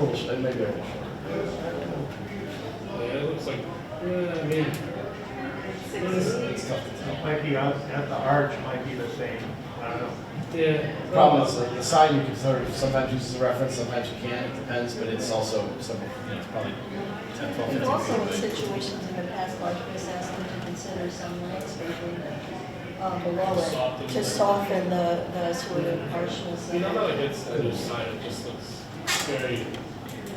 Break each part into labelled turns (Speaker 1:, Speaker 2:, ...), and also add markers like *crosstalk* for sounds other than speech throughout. Speaker 1: rules, they may be able to.
Speaker 2: Oh, Yeah, it looks like, yeah, I mean, it's, it's tough to tell.
Speaker 3: Might be out at the arch, might be the same, I don't know.
Speaker 2: Yeah.
Speaker 1: The problem is, like, the sign you can sort of, sometimes use as a reference, sometimes you can't, it depends, but it's also some, you know, it's probably 10, 12,
Speaker 4: We've
Speaker 1: 15
Speaker 4: also
Speaker 1: feet
Speaker 4: in
Speaker 1: away.
Speaker 4: situations in the past, like this asked them to consider some landscaping um, below it to soften the, the sort of harshness
Speaker 2: You know, now
Speaker 4: of
Speaker 2: that it's the other side, it just looks very,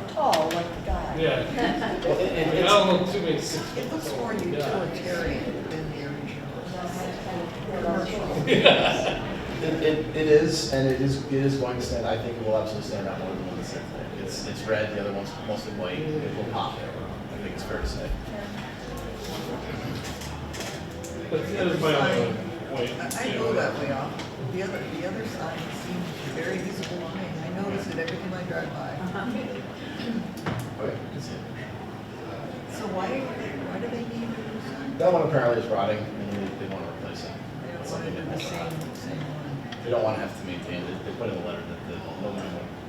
Speaker 4: tall, like the guy.
Speaker 2: yeah.
Speaker 1: Well, it-
Speaker 2: I
Speaker 1: it-
Speaker 2: mean, I
Speaker 1: it's-
Speaker 2: don't look too many six.
Speaker 5: It looks more
Speaker 2: Yeah.
Speaker 5: utilitarian than the
Speaker 4: That
Speaker 5: original.
Speaker 4: might kind of-
Speaker 1: It, it, it is, and it is, it is going to stand, I think it will absolutely stand out more than one same thing. It's, it's red, the other one's mostly white, it will pop there, I think it's fair to say.
Speaker 2: But there's my own point.
Speaker 5: I I go that way off. The other, the other sign seems very visible to me. I notice it every time I drive by.
Speaker 1: Okay, that's it.
Speaker 5: So why, why do they need a new sign?
Speaker 1: That one apparently is rotting, and they, they want to replace it.
Speaker 5: They
Speaker 1: It's
Speaker 5: don't
Speaker 1: something
Speaker 5: want it in the
Speaker 1: that-
Speaker 5: same, same one.
Speaker 1: They don't want to have to maintain it, they put in a letter that the building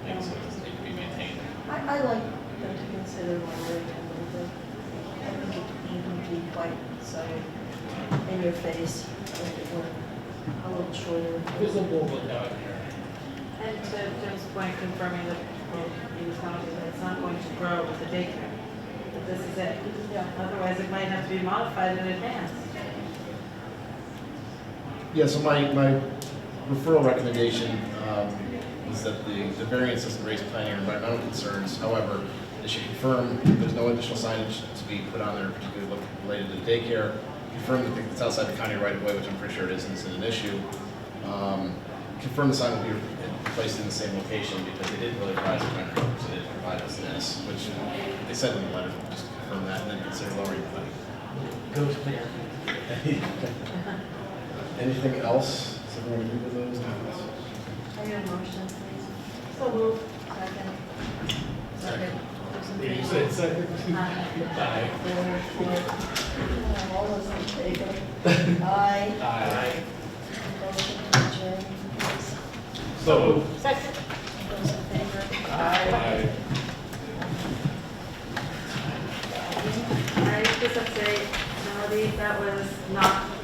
Speaker 1: thinks it doesn't need to be maintained.
Speaker 4: I, I like them to consider one way and the other. I think it wouldn't be quite so in your face if it were a little shorter.
Speaker 2: There's a movement down here.
Speaker 6: And to Jim's point, confirming that, well, he was telling me that it's not going to grow with the daycare, that this is it. Otherwise, it might have to be modified in advance.
Speaker 1: Yeah, so my, my referral recommendation um, is that the, the variance doesn't raise planning or environmental concerns. However, they should confirm there's no additional signage to be put on there particularly look- related to the daycare. Confirm that it's outside the county right of way, which I'm pretty sure it isn't, isn't an issue. Um, Confirm the sign will be placed in the same location because they didn't really provide us a rendering, so they didn't provide us this, which they said in the letter, just confirm that and then consider lowering the planning.
Speaker 3: Goes clear.
Speaker 1: *laughs* Anything else? Is everyone good with those?
Speaker 4: I need a motion, please.
Speaker 6: So move.
Speaker 4: Second.
Speaker 1: Second.
Speaker 2: You said second.
Speaker 5: Uh-huh.
Speaker 2: Aye.
Speaker 4: All those in favor? Aye.
Speaker 2: Aye.
Speaker 4: Motion to adjourn, please.
Speaker 2: So.
Speaker 6: Second.
Speaker 4: Those in favor?
Speaker 2: Aye.
Speaker 6: I just have to say, Melody, that was not